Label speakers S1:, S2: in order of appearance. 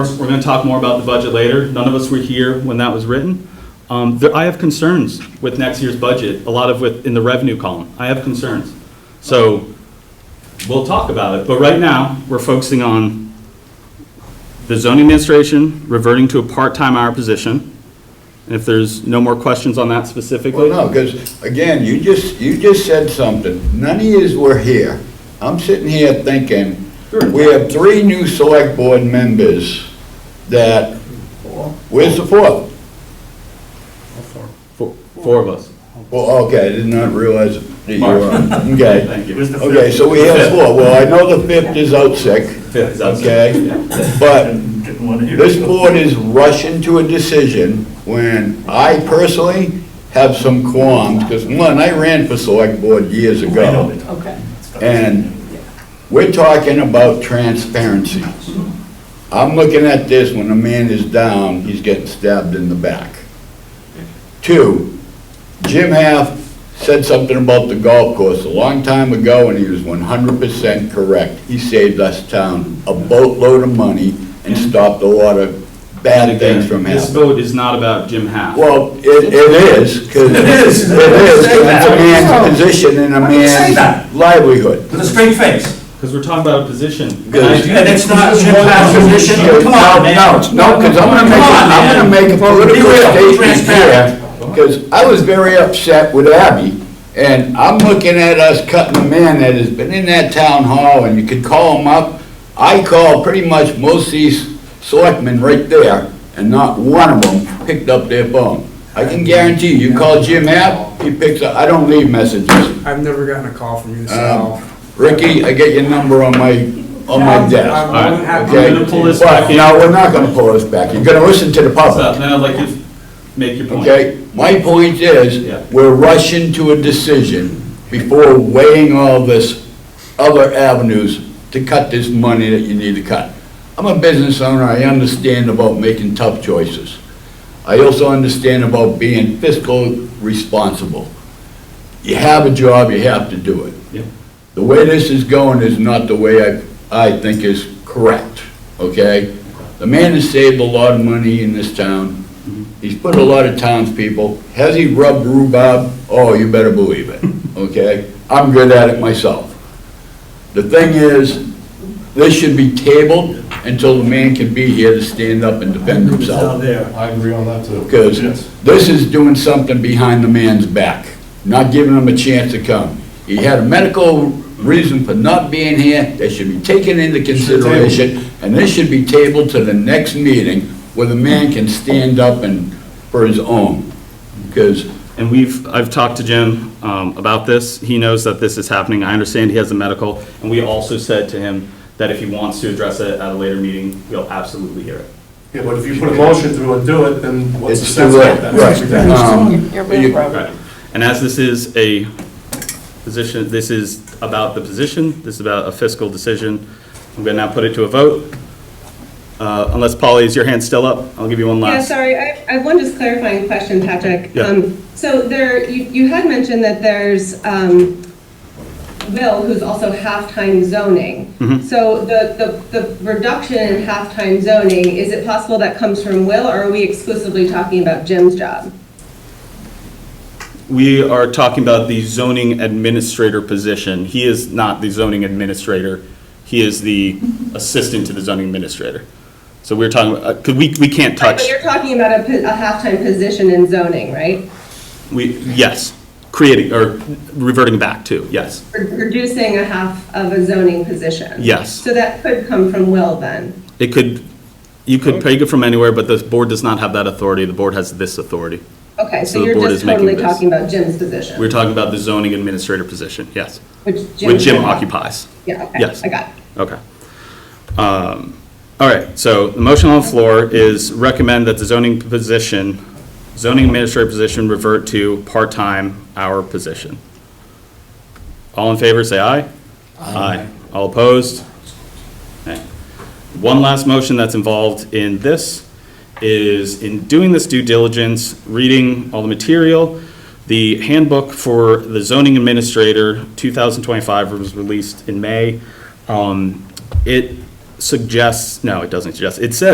S1: We're going to talk more about the budget later. None of us were here when that was written. Um, there- I have concerns with next year's budget, a lot of with, in the revenue column. I have concerns. So we'll talk about it, but right now, we're focusing on the zoning administration reverting to a part-time hour position. And if there's no more questions on that specifically.
S2: Well, no, because, again, you just, you just said something. None of yous were here. I'm sitting here thinking, we have three new select board members that, where's the fourth?
S1: Four four of us.
S2: Well, okay, I did not realize that you were on. Okay.
S1: Thank you. Fifth
S2: Okay, so we have four. Well, I know the fifth is out sick,
S1: is outside.
S2: okay?
S1: Yeah.
S2: But
S3: Didn't want to hear.
S2: This
S3: it.
S2: board is rushing to a decision when I personally have some qualms, because one, I ran for select board years
S3: I know
S2: ago.
S3: they talk
S4: Okay.
S3: stuff.
S2: And we're talking about transparency. I'm looking at this, when a man is down, he's getting stabbed in the back. Two, Jim Half said something about the golf course a long time ago, and he was one hundred percent correct. He saved us town a boatload of money and stopped a lot of bad things from
S1: This
S2: happening.
S1: vote is not about Jim Half.
S2: Well, it, it is, 'cause It is, 'cause it's a man's position and a
S3: Why do you say that?
S2: man's livelihood.
S3: With a straight face.
S1: Because we're talking about a position.
S2: Good.
S1: And I do-
S3: And it's not Jim Pat's position, come on, man.
S2: No, no, because I'm gonna make,
S3: Come on,
S2: I'm gonna
S3: man.
S2: make a
S3: Be
S2: political
S3: real,
S2: statement
S3: transparent.
S2: here, because I was very upset with Abby, and I'm looking at us cutting a man that has been in that town hall, and you could call him up. I called pretty much most of these selectmen right there, and not one of them picked up their phone. I can guarantee you, you call Jim App, he picks up, I don't leave messages.
S5: I've never gotten a call from you, so.
S6: Um,
S2: Ricky, I get your number on my, on my desk.
S5: I'm more than happy
S2: Okay.
S1: I'm gonna pull this back
S2: But,
S1: in.
S2: no, we're not gonna pull this back. You're gonna listen to the
S1: So
S2: public,
S1: Then I'd like you to make your point.
S2: okay? My point
S1: Yeah.
S2: is, we're rushing to a decision before weighing all this other avenues to cut this money that you need to cut. I'm a business owner, I understand about making tough choices. I also understand about being fiscal responsible. You have a job, you have to do it.
S1: Yeah.
S2: The way this is going is not the way I, I think is correct, okay? The man has saved a lot of money in this town. He's put a lot of townspeople. Has he rubbed rhubarb? Oh, you better believe it, okay? I'm good at it myself. The thing is, this should be tabled until the man can be here to stand up and defend himself.
S6: I agree on that too.
S2: Because
S6: Yes.
S2: this is doing something behind the man's back, not giving him a chance to come. He had a medical reason for not being here, that should be taken into consideration, and this should be tabled to the next meeting where the man can stand up and, for his own. Because,
S1: And we've, I've talked to Jim um, about this. He knows that this is happening. I understand he has a medical. And we also said to him that if he wants to address it at a later meeting, we'll absolutely hear it.
S6: Yeah, but if you put a motion through and do it, then what's the
S2: it's
S6: sense
S2: too
S6: of
S2: late,
S6: that?
S2: right. Um,
S4: You're being
S2: you-
S4: private.
S1: Right. And as this is a position, this is about the position, this is about a fiscal decision. I'm going to now put it to a vote. Uh, Unless, Polly, is your hand still up? I'll give you one
S7: Yeah,
S1: last.
S7: sorry, I I have one just clarifying question, Patrick.
S1: Yeah.
S7: Um, So there, you you had mentioned that there's um, Will, who's also halftime zoning.
S1: Mm-hmm.
S7: So the the the reduction in halftime zoning, is it possible that comes from Will, or are we exclusively talking about Jim's job?
S1: We are talking about the zoning administrator position. He is not the zoning administrator. He is the assistant to the zoning administrator. So we're talking, uh, could, we, we can't
S7: Right,
S1: touch,
S7: But you're talking about a po- a halftime position in zoning, right?
S1: we, yes, creating, or reverting back to, yes.
S7: Re- Reducing a half of a zoning position.
S1: Yes.
S7: So that could come from Will, then?
S1: It could, you could pick it from anywhere, but the board does not have that authority. The board has this authority.
S7: Okay,
S1: So
S7: so
S1: the
S7: you're
S1: board
S7: just
S1: is making
S7: totally
S1: this.
S7: talking about Jim's position?
S1: We're talking about the zoning administrator position, yes,
S7: Which Jim.
S1: which Jim occupies.
S7: Yeah, okay.
S1: Yes.
S7: I got it.
S1: Okay. Um, All right, so the motion on the floor is recommend that the zoning position, zoning administrator position revert to part-time hour position. All in favor, say aye. Aye. All opposed? Okay. One last motion that's involved in this is in doing this due diligence, reading all the material, the handbook for the zoning administrator, 2025, was released in May. Um, It suggests, no, it doesn't suggest, it says